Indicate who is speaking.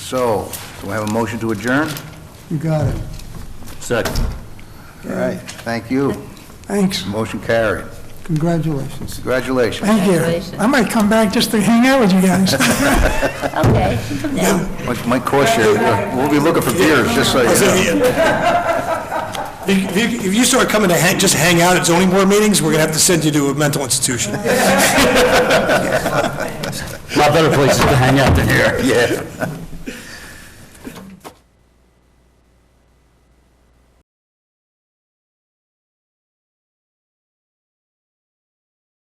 Speaker 1: So, do I have a motion to adjourn?
Speaker 2: You got it.
Speaker 1: Second. All right, thank you.
Speaker 2: Thanks.
Speaker 1: Motion carried.
Speaker 2: Congratulations.
Speaker 1: Congratulations.
Speaker 2: Thank you.
Speaker 3: Congratulations.
Speaker 2: I might come back just to hang out with you guys.
Speaker 3: Okay, you can come down.
Speaker 1: Mike- Mike cost you, we'll be looking for beers, just so you
Speaker 4: So
Speaker 1: know.
Speaker 4: If you- if you- if you start coming to hang, just hang out at zoning board meetings, we're gonna have to send you to a mental institution.
Speaker 5: lot better places to hang out than here.
Speaker 1: Yeah.